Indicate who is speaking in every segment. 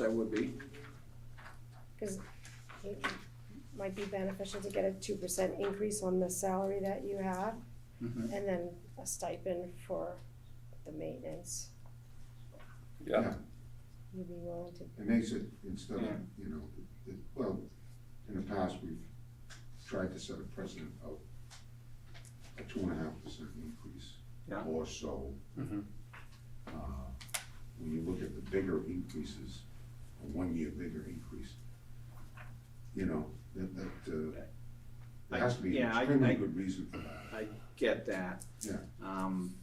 Speaker 1: That would be,
Speaker 2: Cause it might be beneficial to get a two percent increase on the salary that you have,
Speaker 1: Mhm.
Speaker 2: and then a stipend for the maintenance.
Speaker 3: Yeah,
Speaker 2: You'd be willing to,
Speaker 4: It makes it, instead of,
Speaker 1: Yeah.
Speaker 4: you know, it, well, in the past, we've tried to set a precedent of a two and a half percent increase.
Speaker 1: Yeah.
Speaker 4: Or so.
Speaker 1: Mhm.
Speaker 4: Uh, When you look at the bigger increases, a one-year bigger increase, you know, that, that, uh,
Speaker 1: I-
Speaker 4: there has to be an
Speaker 1: yeah, I-
Speaker 4: extremely
Speaker 1: I-
Speaker 4: good reason for that.
Speaker 1: I get that.
Speaker 4: Yeah.
Speaker 1: Um,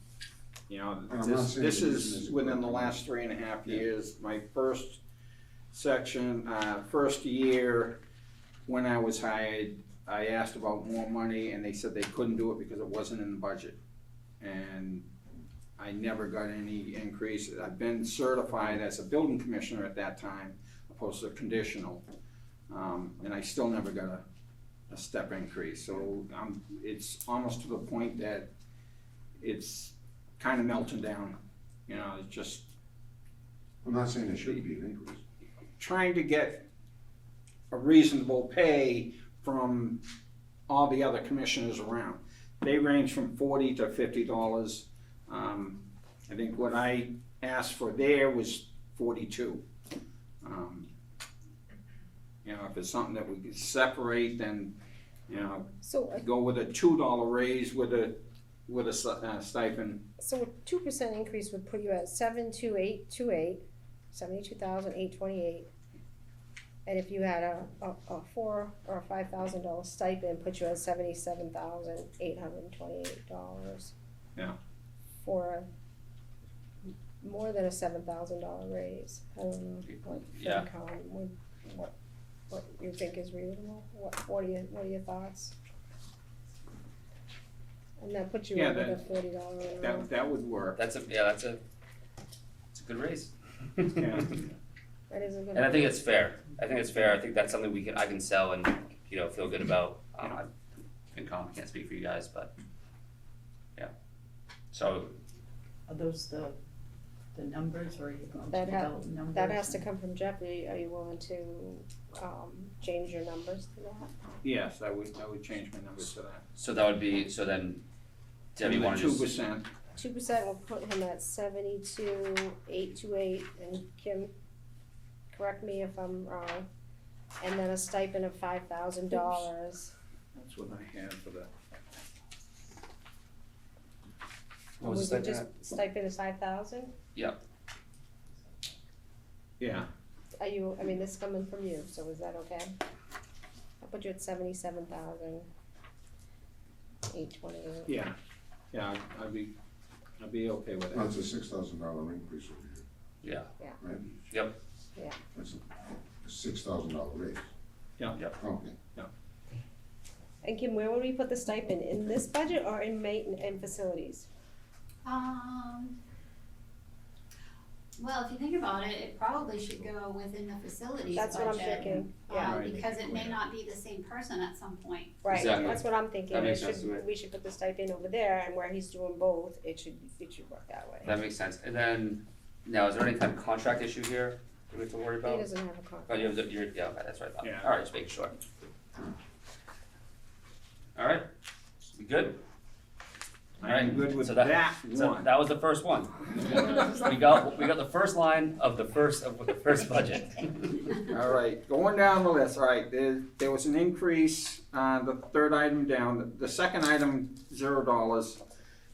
Speaker 1: you know,
Speaker 4: I'm not
Speaker 1: this,
Speaker 4: saying
Speaker 1: this
Speaker 4: it isn't
Speaker 1: is
Speaker 4: as a
Speaker 1: within the
Speaker 4: good
Speaker 1: last three and a half
Speaker 4: Yeah.
Speaker 1: years, my first section, uh, first year when I was hired, I asked about more money and they said they couldn't do it because it wasn't in the budget. And I never got any increase, I've been certified as a building commissioner at that time, opposed to conditional. Um, and I still never got a, a step increase, so I'm, it's almost to the point that it's kind of melting down. You know, it's just
Speaker 4: I'm not saying there shouldn't be an increase.
Speaker 1: trying to get a reasonable pay from all the other commissioners around. They range from forty to fifty dollars. Um, I think what I asked for there was forty-two. Um, You know, if it's something that we could separate, then, you know,
Speaker 2: so a,
Speaker 1: go with a two-dollar raise with a, with a s- uh, stipend.
Speaker 2: so a two percent increase would put you at seven two eight two eight, seventy-two thousand eight twenty-eight. And if you had a, a, a four or a five thousand dollar stipend, put you at seventy-seven thousand eight hundred and twenty-eight dollars.
Speaker 1: Yeah.
Speaker 2: For a, more than a seven thousand dollar raise, I don't know, what
Speaker 3: Yeah.
Speaker 2: FinCom would, what, what you think is reasonable, what, what are your, what are your thoughts? And that puts you
Speaker 1: Yeah,
Speaker 2: over the
Speaker 1: that-
Speaker 2: forty dollar an hour.
Speaker 1: That, that would work.
Speaker 3: that's a, yeah, that's a, it's a good raise.
Speaker 1: Yeah.
Speaker 2: That is a good.
Speaker 3: And I think it's fair, I think it's fair, I think that's something we can, I can sell and, you know, feel good
Speaker 1: Mm-hmm.
Speaker 3: about. Um, I, FinCom, I can't speak for you guys, but, yeah. So,
Speaker 5: Are those the, the numbers or are you going to
Speaker 2: That ha-
Speaker 5: develop numbers?
Speaker 2: That has to come from Jeff, are you, are you willing to, um, change your numbers to that?
Speaker 1: Yes, I would, I would change my numbers to that.
Speaker 3: so that would be, so then, Debbie, wanna
Speaker 1: Two
Speaker 3: just,
Speaker 1: percent,
Speaker 2: Two percent will put him at seventy-two, eight two eight, and Kim, correct me if I'm wrong. And then a stipend of five thousand dollars,
Speaker 1: that's what I had for the,
Speaker 3: what was
Speaker 2: was
Speaker 3: the
Speaker 2: it
Speaker 3: second?
Speaker 2: just stipend is five thousand?
Speaker 1: yeah,
Speaker 2: Are you, I mean, this is coming from you, so is that okay? I put you at seventy-seven thousand, eight twenty-eight.
Speaker 1: yeah, yeah, I'd- I'd be, I'd be okay with
Speaker 4: Well,
Speaker 1: that.
Speaker 4: it's a six thousand dollar increase over here.
Speaker 3: Yeah.
Speaker 2: Yeah.
Speaker 4: Right?
Speaker 3: Yep.
Speaker 2: Yeah.
Speaker 4: That's a six thousand dollar raise.
Speaker 1: Yeah.
Speaker 3: Yep.
Speaker 4: Okay.
Speaker 2: And Kim, where would we put the stipend, in this budget or in maintenance and facilities?
Speaker 6: Um, well, if you think about it, it probably should go within the facilities budget.
Speaker 2: That's what I'm thinking, yeah,
Speaker 6: uh,
Speaker 3: Right.
Speaker 6: because it may not be the same person at some point.
Speaker 2: right,
Speaker 3: Exactly.
Speaker 2: that's what I'm thinking,
Speaker 3: That
Speaker 2: we
Speaker 3: makes sense to me.
Speaker 2: should, we should put the stipend over there, and where he's doing both, it should, it should work that way.
Speaker 3: That makes sense, and then, now, is there any type of contract issue here that we have to worry
Speaker 2: He
Speaker 3: about?
Speaker 2: doesn't have a contract.
Speaker 3: Oh, you have, the- you're, yeah, okay, that's right, Bob,
Speaker 1: Yeah.
Speaker 3: alright, just making sure. Alright, we good?
Speaker 1: I'm
Speaker 3: Alright,
Speaker 1: good with
Speaker 3: so that-
Speaker 1: that
Speaker 3: So
Speaker 1: one.
Speaker 3: that was the first one. We got, we got the first line of the first, of the first budget.
Speaker 1: All right, going down the list, all right, there, there was an increase, uh, the third item down, The- the second item, zero dollars.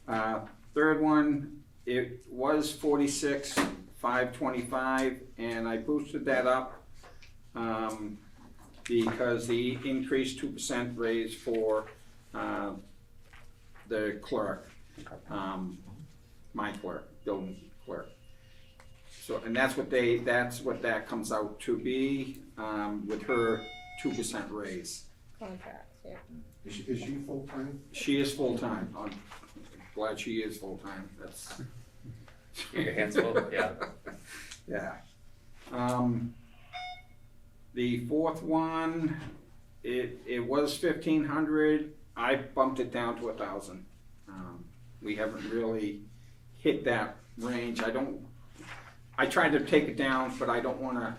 Speaker 1: Uh, third one, it was forty-six, five twenty-five, and I boosted that up, um, because the increased two percent raise for, uh, the clerk, um, my clerk, building clerk. So, and that's what they, that's what that comes out to be, um, with her two percent raise.
Speaker 2: Contract, yeah,
Speaker 4: Is she, is she full-time?
Speaker 1: She is full-time, I'm glad she is full-time, that's.
Speaker 3: Your hands full, yeah.
Speaker 1: Yeah. Um, the fourth one, it, it was fifteen hundred, I bumped it down to a thousand. Um, we haven't really hit that range, I don't, I tried to take it down, but I don't wanna